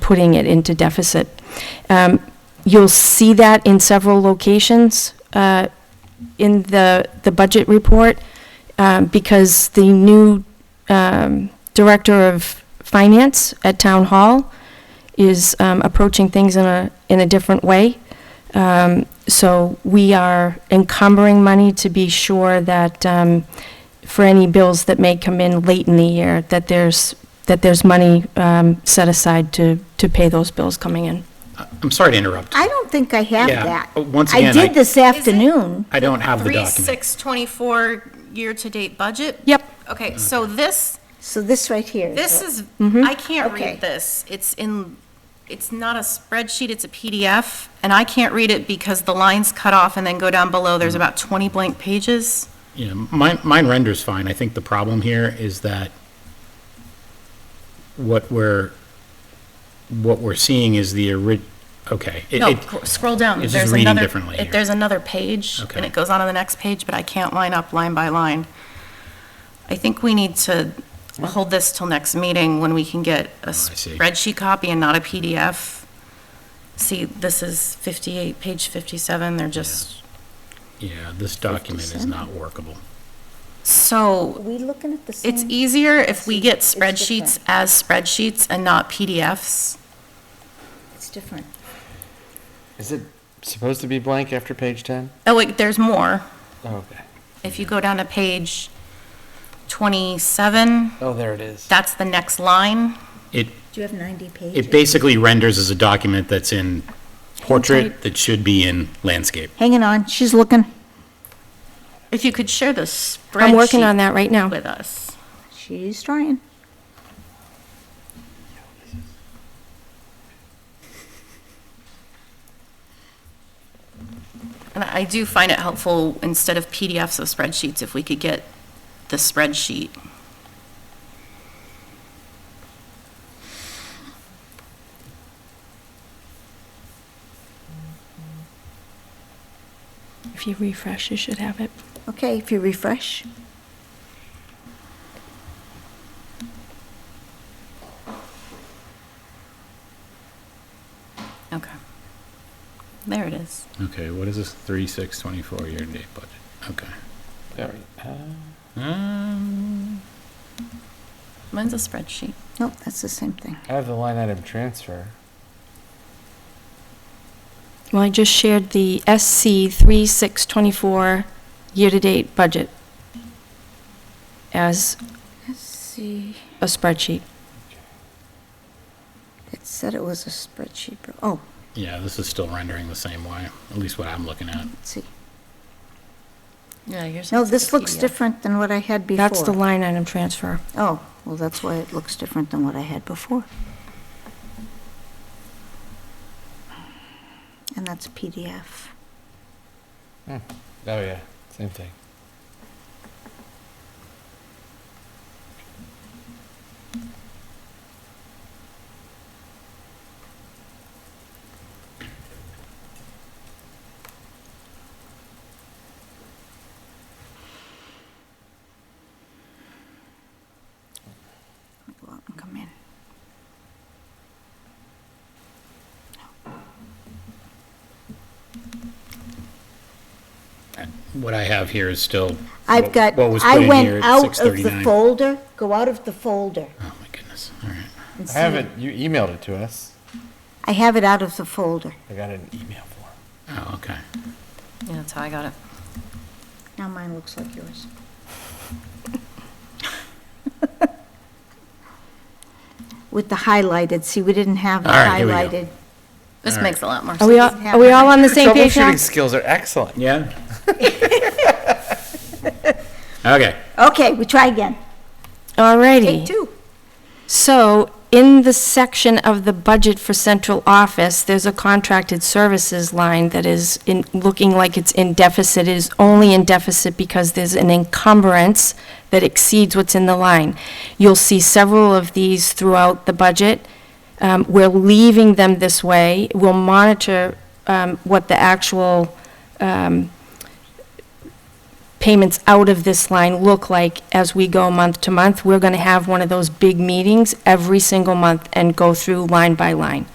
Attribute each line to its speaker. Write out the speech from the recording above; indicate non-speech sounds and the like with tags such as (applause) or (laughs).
Speaker 1: putting it into deficit. Um, You'll see that in several locations uh, in the, the budget report, um, because the new um, Director of Finance at Town Hall is um, approaching things in a, in a different way. Um, So we are encumbering money to be sure that um, for any bills that may come in late in the year, that there's, that there's money um, set aside to, to pay those bills coming in.
Speaker 2: I'm sorry to interrupt.
Speaker 3: I don't think I have
Speaker 2: Yeah,
Speaker 3: that.
Speaker 2: but once again,
Speaker 3: I
Speaker 2: I-
Speaker 3: did this afternoon.
Speaker 2: I don't have the
Speaker 4: Three,
Speaker 2: document.
Speaker 4: six, twenty-four year-to-date budget?
Speaker 1: Yep.
Speaker 4: Okay, so this,
Speaker 3: So this right here. is
Speaker 4: this
Speaker 3: what-
Speaker 4: is, I can't
Speaker 3: Okay.
Speaker 4: read this. It's in, it's not a spreadsheet, it's a PDF, and I can't read it because the lines cut off and then go down below, there's
Speaker 2: Mm-hmm.
Speaker 4: about twenty blank pages.
Speaker 2: You know, mine, mine renders fine. I think the problem here is that what we're, what we're seeing is the orig, okay. it-
Speaker 4: No,
Speaker 2: it-
Speaker 4: gr- scroll down.
Speaker 2: it's just
Speaker 4: There's
Speaker 2: reading
Speaker 4: another,
Speaker 2: differently
Speaker 4: it-
Speaker 2: here.
Speaker 4: there's another page, and
Speaker 2: Okay.
Speaker 4: it goes on to the next page, but I can't line up line by line. I think we need to hold this till next meeting when we can get a
Speaker 2: Oh, I see.
Speaker 4: spreadsheet copy and not a PDF. See, this is 58, page 57, they're just,
Speaker 2: Yeah, this document is not workable.
Speaker 3: Are
Speaker 4: so
Speaker 3: we looking at the same?
Speaker 4: it's easier if we get
Speaker 3: It's different.
Speaker 4: spreadsheets as spreadsheets and not PDFs.
Speaker 3: It's different.
Speaker 5: Is it supposed to be blank after page 10?
Speaker 4: Oh, wait, there's more.
Speaker 5: Oh, okay.
Speaker 4: If you go down to page 27,
Speaker 5: Oh, there it is.
Speaker 4: that's the next line.
Speaker 2: It,
Speaker 3: Do you have 90 pages?
Speaker 2: it basically renders as a document that's in portrait that should be in landscape.
Speaker 3: Hanging on, she's looking.
Speaker 4: If you could share the spreadsheet.
Speaker 1: I'm working on that right now.
Speaker 4: With us.
Speaker 3: She's trying.
Speaker 4: And I do find it helpful, instead of PDFs of spreadsheets, if we could get the spreadsheet.
Speaker 1: If you refresh, you should have it.
Speaker 3: Okay, if you refresh.
Speaker 4: Okay. There it is.
Speaker 2: Okay, what is this three, six, twenty-four year-to-date budget? Okay.
Speaker 5: There we- uh,
Speaker 2: Um,
Speaker 4: Mine's a spreadsheet.
Speaker 3: Nope, that's the same thing.
Speaker 5: I have the line item transfer.
Speaker 1: Well, I just shared the SC 3624 year-to-date budget as
Speaker 3: Let's see.
Speaker 1: a spreadsheet.
Speaker 3: It said it was a spreadsheet, but, oh,
Speaker 2: Yeah, this is still rendering the same way, at least what I'm looking at.
Speaker 3: let's see.
Speaker 4: Yeah, yours.
Speaker 3: No, this looks different than what I had before.
Speaker 1: That's the line item transfer.
Speaker 3: Oh, well, that's why it looks different than what I had before. And that's PDF.
Speaker 5: Hmm. Oh, yeah, same thing.
Speaker 3: Go out and come in.
Speaker 2: What I have here is still.
Speaker 3: I've
Speaker 2: what-
Speaker 3: got,
Speaker 2: What was
Speaker 3: I
Speaker 2: put in here
Speaker 3: went
Speaker 2: at
Speaker 3: out of the
Speaker 2: 6:39.
Speaker 3: folder, go out of the folder.
Speaker 2: Oh, my goodness, all right.
Speaker 3: and
Speaker 5: I
Speaker 3: see-
Speaker 5: have it, you emailed it to us.
Speaker 3: I have it out of the folder.
Speaker 5: I got an email for
Speaker 2: Oh, okay.
Speaker 4: Yeah, that's how I got it.
Speaker 3: Now mine looks like yours. (laughs) With the highlighted, see, we didn't have the
Speaker 2: All right, here we go.
Speaker 3: highlighted.
Speaker 4: This
Speaker 2: All right.
Speaker 4: makes a lot more
Speaker 1: Are
Speaker 4: sense.
Speaker 1: we all, are we all on the same page now?
Speaker 5: Troubleshooting skills are
Speaker 3: (laughs)
Speaker 5: excellent.
Speaker 2: Yeah? Okay,
Speaker 3: Okay, we try again. Take
Speaker 1: Alrighty.
Speaker 3: two.
Speaker 1: So in the section of the budget for central office, there's a contracted services line that is in, looking like it's in deficit. It is only in deficit because there's an encumbrance that exceeds what's in the line. You'll see several of these throughout the budget. Um, We're leaving them this way. We'll monitor um, what the actual payments out of this line look like as we go month to month. We're going to have one of those big meetings every single month and go through line by line.